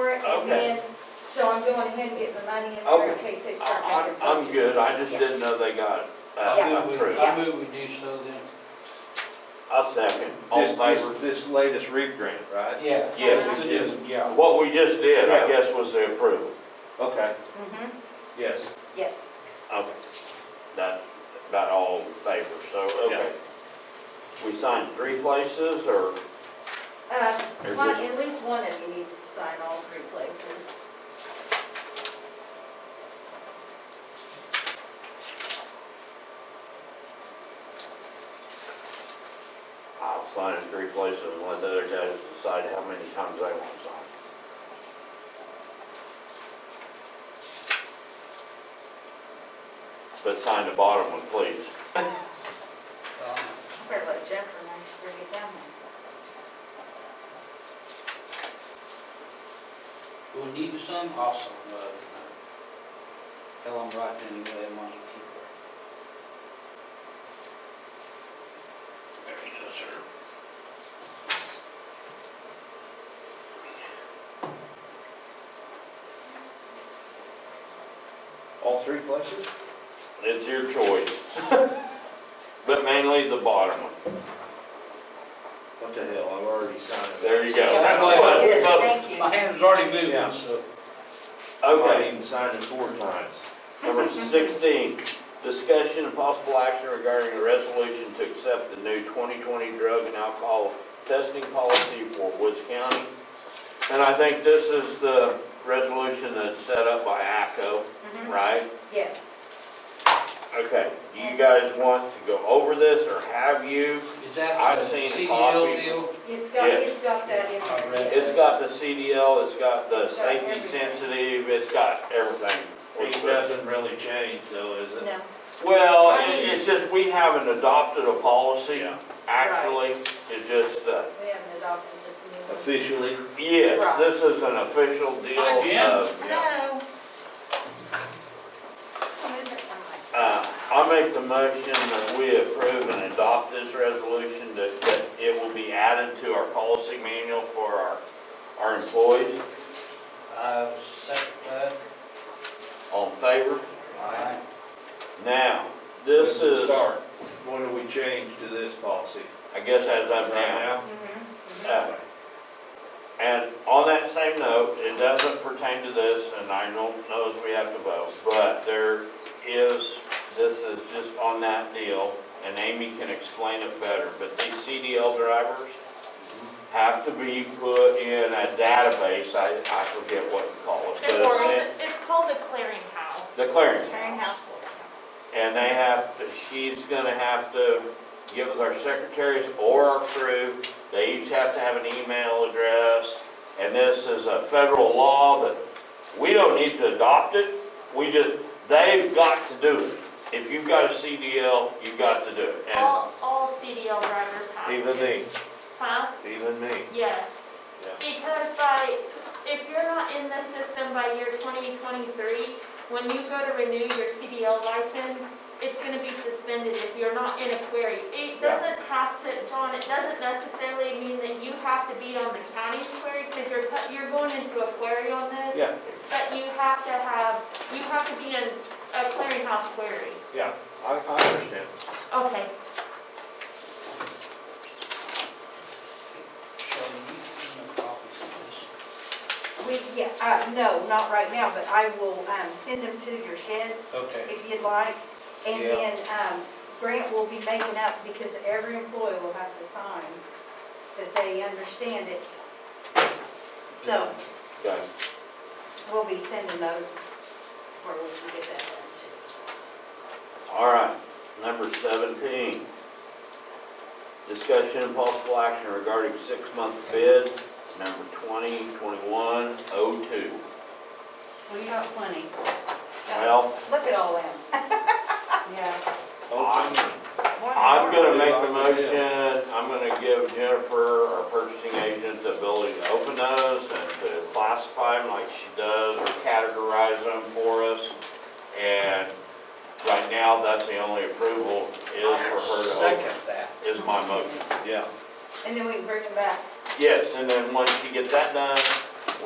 and Okay. then, so I'm going ahead and getting the money in there in Okay. case they start I- making. I'm, I'm good, I just didn't know they got it uh, I move we- approved. I move we do so then. I'll second, all in This, favor? this, this latest REAP grant, right? Yeah. Yeah, So we do- Yeah. What we just did, I guess, was the approval. Okay, Mhm, yes. Yes. Okay. That, about all in favor, so, okay. We signed three places, or, Um, Very one- good. at least one of you needs to sign all three places. I'll sign in three places and let the other guys decide how many times they want to sign. But sign the bottom one, please. Um, Better let Jennifer know she's gonna get down We'll need some also, but tell them right then you have money people. There he is, sir. All three places? It's your choice. But mainly the bottom one. What the hell, I've already signed it. There you go. Yeah, That's that's what- there. It is, well, thank you. My hand was already Yeah. moving, so. I Okay, even signed it four times. number sixteen, discussion and possible action regarding a resolution to accept the new twenty twenty drug and alcohol testing policy for Woods County. And I think this is the resolution that's set up by ACO, Mhm, right? Yes. Okay, do you guys want to go over this, or have you? Is that I've the seen a CDL copy. deal? It's got, Yeah. it's got that in I read there. it. It's got the CDL, it's got the It's got safety everything. sensitive, it's got everything. It doesn't really change though, is it? No, Well, I it- mean- it's just, we haven't adopted a policy, Yeah. actually, it's just, uh, we haven't adopted this new one. Officially? yes, Right. this is an official deal Hi, Jim. of, Hello. Oh, is it something? uh, I make the motion that we approve and adopt this resolution, that, that it will be added to our policy manual for our, our employees. I second that. All in favor? Aye. Now, this When we is, Start, what do we change to this policy? I guess as Right of now, Mm-hmm. now? Mhm, mhm. uh, And on that same note, it doesn't pertain to this, and I don't know if we have to vote, but there is, this is just on that deal, and Amy can explain it better, but these CDL drivers have to be put in a database, I, I forget what to call it, It's but called, it's it's called the clearinghouse. in the clearinghouse. Clearinghouse Board. And they have, to- she's gonna have to give us our secretaries or our crew, they each have to have an email address. And this is a federal law that we don't need to adopt it, we just, they've got to do it. If you've got a CDL, you've got to do it. And All, all CDL drivers have to. Even me, Huh? even me. Yes. Yeah. Because by, if you're not in the system by year 2023, when you go to renew your CDL license, it's going to be suspended if you're not in a query. It Yeah. doesn't have to, John, it doesn't necessarily mean that you have to be on the county's query because you're, cut- you're going into a query on this. Yeah. But you have to have, you have to be in a clearinghouse query. Yeah, I, I understand. Okay, So you can copies of We, yeah, uh, no, not right now, but I will, um, send them to your sheds this. Okay. if you'd like. And Yeah. then, um, Grant will be making up because every employee will have to sign that they understand it. So Okay. we'll be sending those where we can get that done too. so. All right, number seventeen. Discussion and possible action regarding six-month bid, number twenty, twenty-one, oh two. We got plenty. Well, Look at all them. Yeah. I'm, Wow. I'm gonna make the motion, I'm gonna give Jennifer, our purchasing agent, the ability to open those and to classify them like she does, or categorize them for us. And right now, that's the only approval is for her to open, Second that. is my motion. Yeah. And then we can bring them back. Yes, and then once you get that done,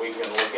we can look